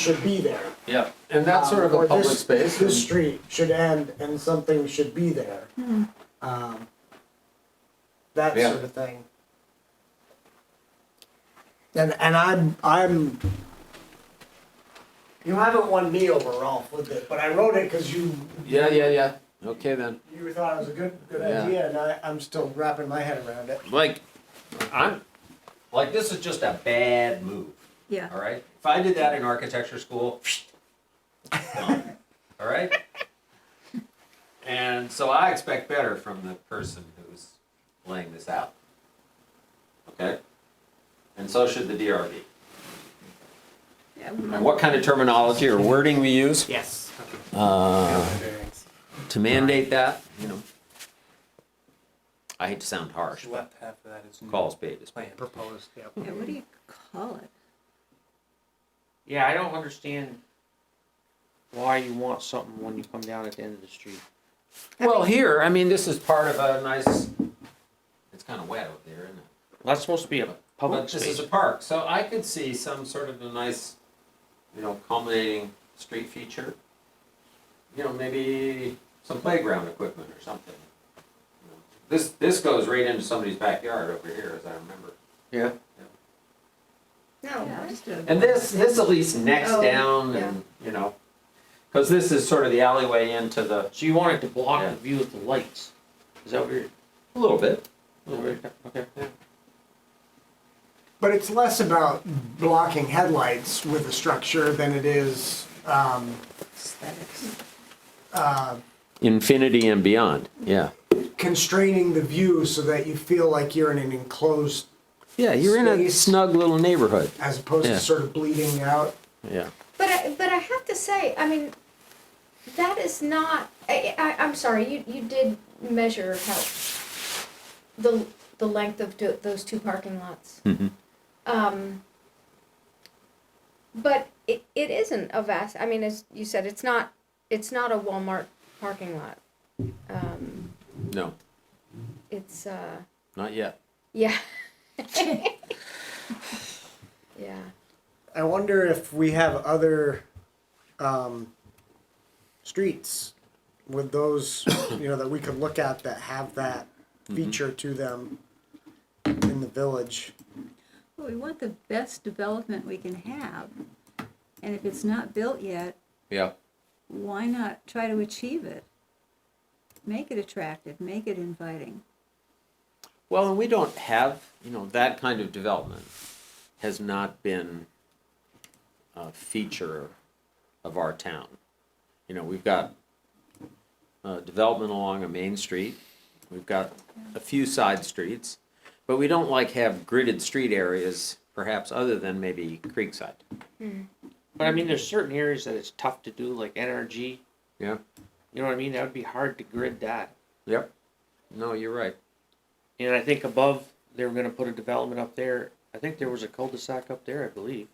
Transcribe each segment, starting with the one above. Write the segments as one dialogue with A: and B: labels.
A: should be there.
B: Yeah,
C: And that's sort of
A: Um,
C: a
A: or
C: public
A: this-
C: space.
A: This street should end and something should be there. Um, That
C: Yeah.
A: sort of thing. And, and I'm, I'm, you haven't won me over, Ralph, with it, but I wrote it because you,
C: yeah, yeah, yeah. Okay then.
A: you thought it was a good, good
C: Yeah.
A: idea and I, I'm still wrapping my head around it.
B: like,
C: I'm
B: like this is just a bad move,
D: Yeah,
B: all right? If I did that in architecture school, gone, all right? And so I expect better from the person who's laying this out. Okay? And so should the DRB.
D: yeah,
B: And what kind of terminology or wording we use
A: Yes.
B: uh, to mandate that, you know? I hate to sound harsh, but
E: Left half of that is
B: call a spade a spade.
E: plan.
A: Proposed, yeah.
D: yeah, what do you call it?
F: Yeah, I don't understand why you want something when you come down at the end of the street.
B: Well, here, I mean, this is part of a nice, it's kind of wet over there, isn't it?
F: Well, that's supposed to be a
B: But
F: public
B: this is
F: space.
B: a park, so I could see some sort of a nice, you know, culminating street feature. You know, maybe some playground equipment or something. you know. This, this goes right into somebody's backyard over here, as I remember.
F: Yeah.
D: Yeah, just a-
B: And this, this at least necks
D: Oh,
B: down and, you know, because this is sort of the alleyway into the.
F: So you want it to block
B: Yeah.
F: the view of the lights? Is that weird?
B: A little bit.
F: Okay.
A: But it's less about blocking headlights with a structure than it is, um,
D: Aesthetics.
A: uh,
B: Infinity and beyond, yeah.
A: constraining the view so that you feel like you're in an enclosed,
B: Yeah,
A: you're in a Space.
B: snug little neighborhood,
A: as opposed
B: Yeah.
A: to sort of bleeding out.
B: yeah.
G: But I, but I have to say, I mean, that is not. I, I, I'm sorry. You you did measure how the the length of do, those two parking lots.
B: Mhm.
G: Um. But it, it isn't a vast. I mean, as you said, it's not it's not a Walmart parking lot. Um,
B: No,
G: it's uh,
B: not yet.
G: yeah. yeah.
A: I wonder if we have other um, streets with those, you know, that we could look at that have that
F: Mm-hmm.
A: feature to them in the village.
D: Well, we want the best development we can have. And if it's not built yet,
B: Yeah.
D: why not try to achieve it? Make it attractive, make it inviting.
B: Well, and we don't have, you know, that kind of development has not been a feature of our town. You know, we've got uh, development along a main street, we've got a few side streets, but we don't like have gridded street areas, perhaps other than maybe Creekside.
F: But I mean, there's certain areas that it's tough to do, like NRG.
B: Yeah.
F: You know what I mean? That would be hard to grid that.
B: Yep. No, you're right.
F: And I think above, they were gonna put a development up there. I think there was a cul-de-sac up there, I believe.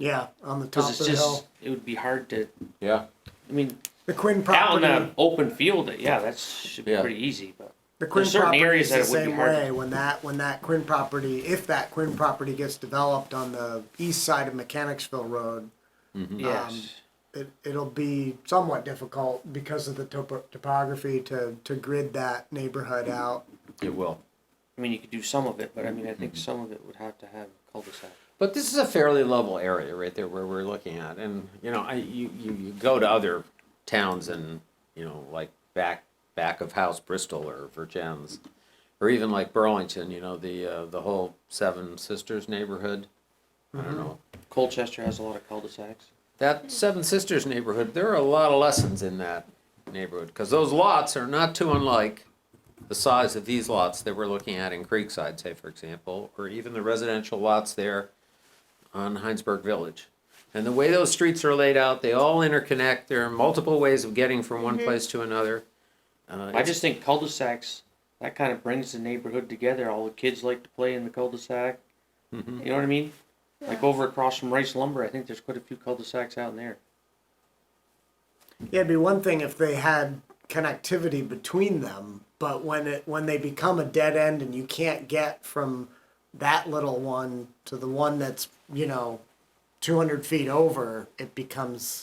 A: Yeah, on the top
F: Cause
A: of
F: Mm-hmm. it's
A: the
F: just,
A: hill.
F: it would be hard to,
B: Yeah.
F: I mean,
A: The Quinn
F: out in
A: property.
F: the open field, yeah, that's, should be
B: Yeah.
F: pretty easy, but.
A: The Quinn
F: There's certain
A: property is
F: areas
A: the
F: that it would be
A: same
F: hard to-
A: way, when that, when that Quinn property, if that Quinn property gets developed on the east side of Mechanicsville Road,
B: Mm-hmm.
F: Yes.
A: it, it'll be somewhat difficult because of the topo- topography to, to grid that neighborhood out.
B: It will.
F: I mean, you could do some of it, but I mean, I think some of it would have to have cul-de-sac.
B: But this is a fairly level area right there where we're looking at, and, you know, I, you, you, you go to other towns and, you know, like back, back of house Bristol or Virgins, or even like Burlington, you know, the, uh, the whole Seven Sisters neighborhood. I don't know,
F: Colchester has a lot of cul-de-sacs.
B: that Seven Sisters neighborhood, there are a lot of lessons in that neighborhood, cause those lots are not too unlike the size of these lots that we're looking at in Creekside, say, for example, or even the residential lots there on Heinsberg Village. And the way those streets are laid out, they all interconnect, there are multiple ways of getting from one place to another. Uh,
F: I
B: it's-
F: just think cul-de-sacs, that kind of brings the neighborhood together. All the kids like to play in the cul-de-sac. You know what I mean? Like over across from Rice Lumber, I think there's quite a few cul-de-sacs out in there.
A: Yeah, it'd be one thing if they had connectivity between them, but when it, when they become a dead end and you can't get from that little one to the one that's, you know, two hundred feet over, it becomes